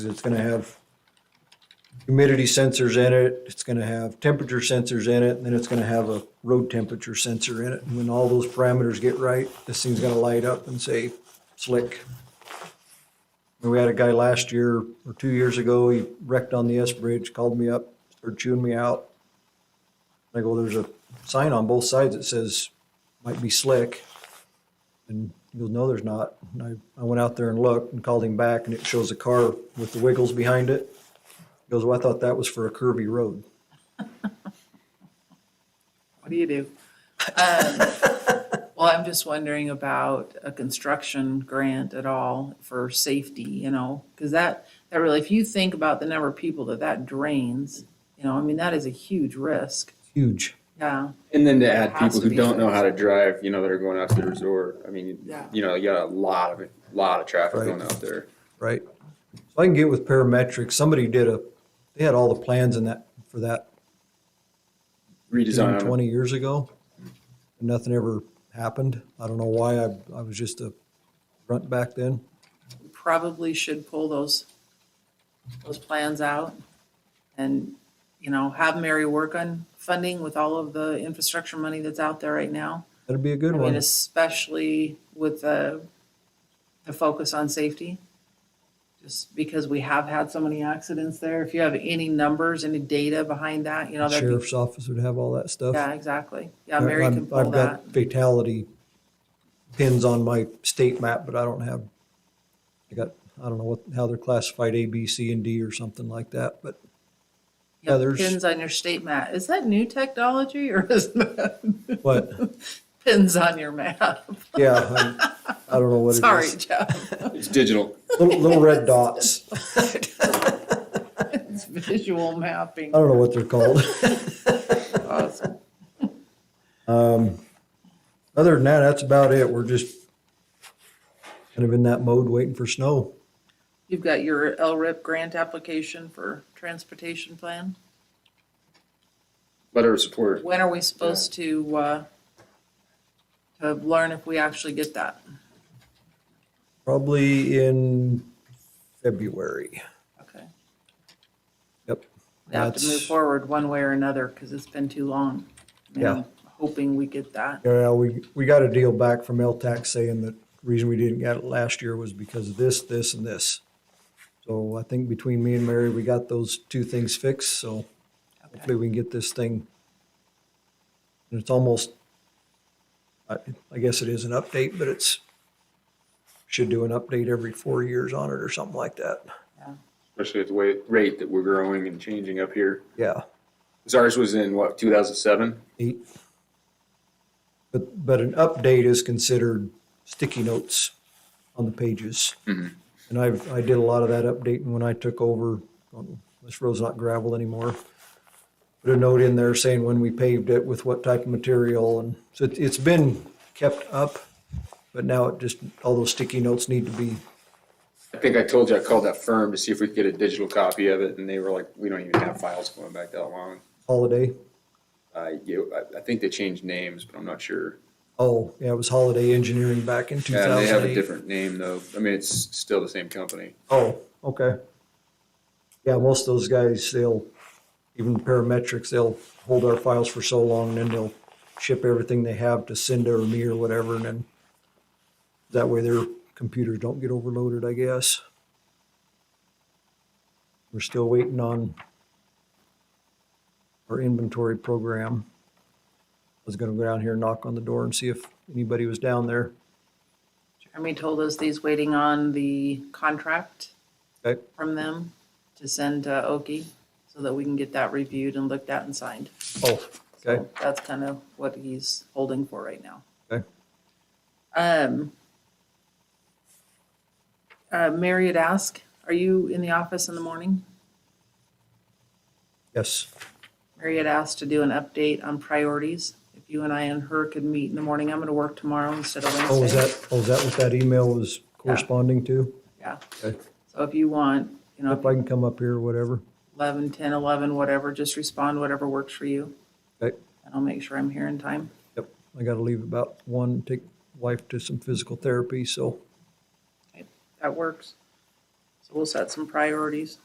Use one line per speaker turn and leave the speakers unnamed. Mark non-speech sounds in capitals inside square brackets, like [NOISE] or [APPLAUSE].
It's gonna have humidity sensors in it, it's gonna have temperature sensors in it, and then it's gonna have a road temperature sensor in it. And when all those parameters get right, this thing's gonna light up and say slick. And We had a guy last year or two years ago, he wrecked on the S Bridge, called me up, started chewing me out. I go, there's a sign on both sides that says, might be slick. And he goes, no, there's not. And I, I went out there and looked and called him back and it shows a car with the wiggles behind it. He goes, well, I thought that was for a curvy road.
What do you do? Um, Well, I'm just wondering about a construction grant at all for safety, you know? Because that, that really, if you think about the number of people that that drains, you know, I mean, that is a huge risk.
Huge.
Yeah,
And then to add
It has
people
to
who
be
don't know
fixed.
how to drive, you know, that are going out to the resort. I mean,
Yeah.
you know, you got a lot of, lot of traffic
Right.
going out there.
Right. So I can get with parametrics. Somebody did a, they had all the plans in that, for that
Redesign. 'em.
twenty years ago. And nothing ever happened. I don't know why. I, I was just a runt back then.
we probably should pull those, those plans out and, you know, have Mary work on funding with all of the infrastructure money that's out there right now.
That'd be a good
I mean,
one.
especially with the, the focus on safety. Just because we have had so many accidents there. If you have any numbers, any data behind that, you know, that'd be,
Sheriff's office would have all that stuff.
yeah, exactly. Yeah,
I-
Mary
I'm-
can pull
I've
that.
got fatality pins on my state map, but I don't have, I got, I don't know what, how they're classified, A, B, C, and D or something like that, but
You have
yeah, there's-
Pins on your state map. Is that new technology or is [LAUGHS] that
But,
pins on your map?
yeah, I'm- I don't know what it
Sorry,
is.
Jeff.
It's digital.
Little, little red dots.
It's [LAUGHS] visual mapping.
I don't know what they're called. [LAUGHS] Oh.
Awesome.
Other than that, that's about it. We're just kind of in that mode waiting for snow.
You've got your LRIP grant application for transportation plan.
Letter of support.
When are we supposed to, uh, to learn if we actually get that?
Probably in February.
Okay.
Yep.
We have to move
That's-
forward one way or another because it's been too long. I mean,
Yeah.
I'm Hoping we get that.
Yeah, well, we, we got a deal back from LTAC saying that the reason we didn't get it last year was because of this, this, and this. So I think between me and Mary, we got those two things fixed, so hopefully we can get this thing. And it's almost, I, I guess it is an update, but it's, should do an update every four years on it or something like that.
Especially at the way, rate that we're growing and changing up here.
Yeah,
'Cause ours was in what, two thousand seven?
eight. But, but an update is considered sticky notes on the pages.
Mm-hmm.
And I've, I did a lot of that updating when I took over. Um, This road's not gravel anymore. Put a note in there saying when we paved it with what type of material and so it- it's been kept up. But now it just, all those sticky notes need to be,
I think I told you I called that firm to see if we could get a digital copy of it and they were like, we don't even have files going back that long.
holiday.
Uh, you, I, I think they changed names, but I'm not sure.
Oh, yeah, it was Holiday Engineering back in two
Yeah, they have
thousand
a
eight.
different name though. I mean, it's still the same company.
Oh, okay. Yeah, most of those guys, they'll, even parametrics, they'll hold our files for so long and then they'll ship everything they have to Cinda or me or whatever and then that way their computers don't get overloaded, I guess. We're still waiting on our inventory program. I was gonna go down here and knock on the door and see if anybody was down there.
Jeremy told us that he's waiting on the contract
Okay,
from them to send to Oki so that we can get that reviewed and looked at and signed.
oh, okay,
So That's kind of what he's holding for right now.
okay.
Um, uh, Mary had asked, are you in the office in the morning?
Yes,
Mary had asked to do an update on priorities. If you and I and her could meet in the morning, I'm gonna work tomorrow instead of Wednesday.
Oh, is that, oh, is that what that email was corresponding to?
Yeah,
Okay.
so if you want, you
If
know,
I can come up here or whatever.
eleven, ten, eleven, whatever, just respond, whatever works for you.
Okay,
And I'll make sure I'm here in time.
yep. I gotta leave about one, take wife to some physical therapy, so
That works. We'll set some priorities.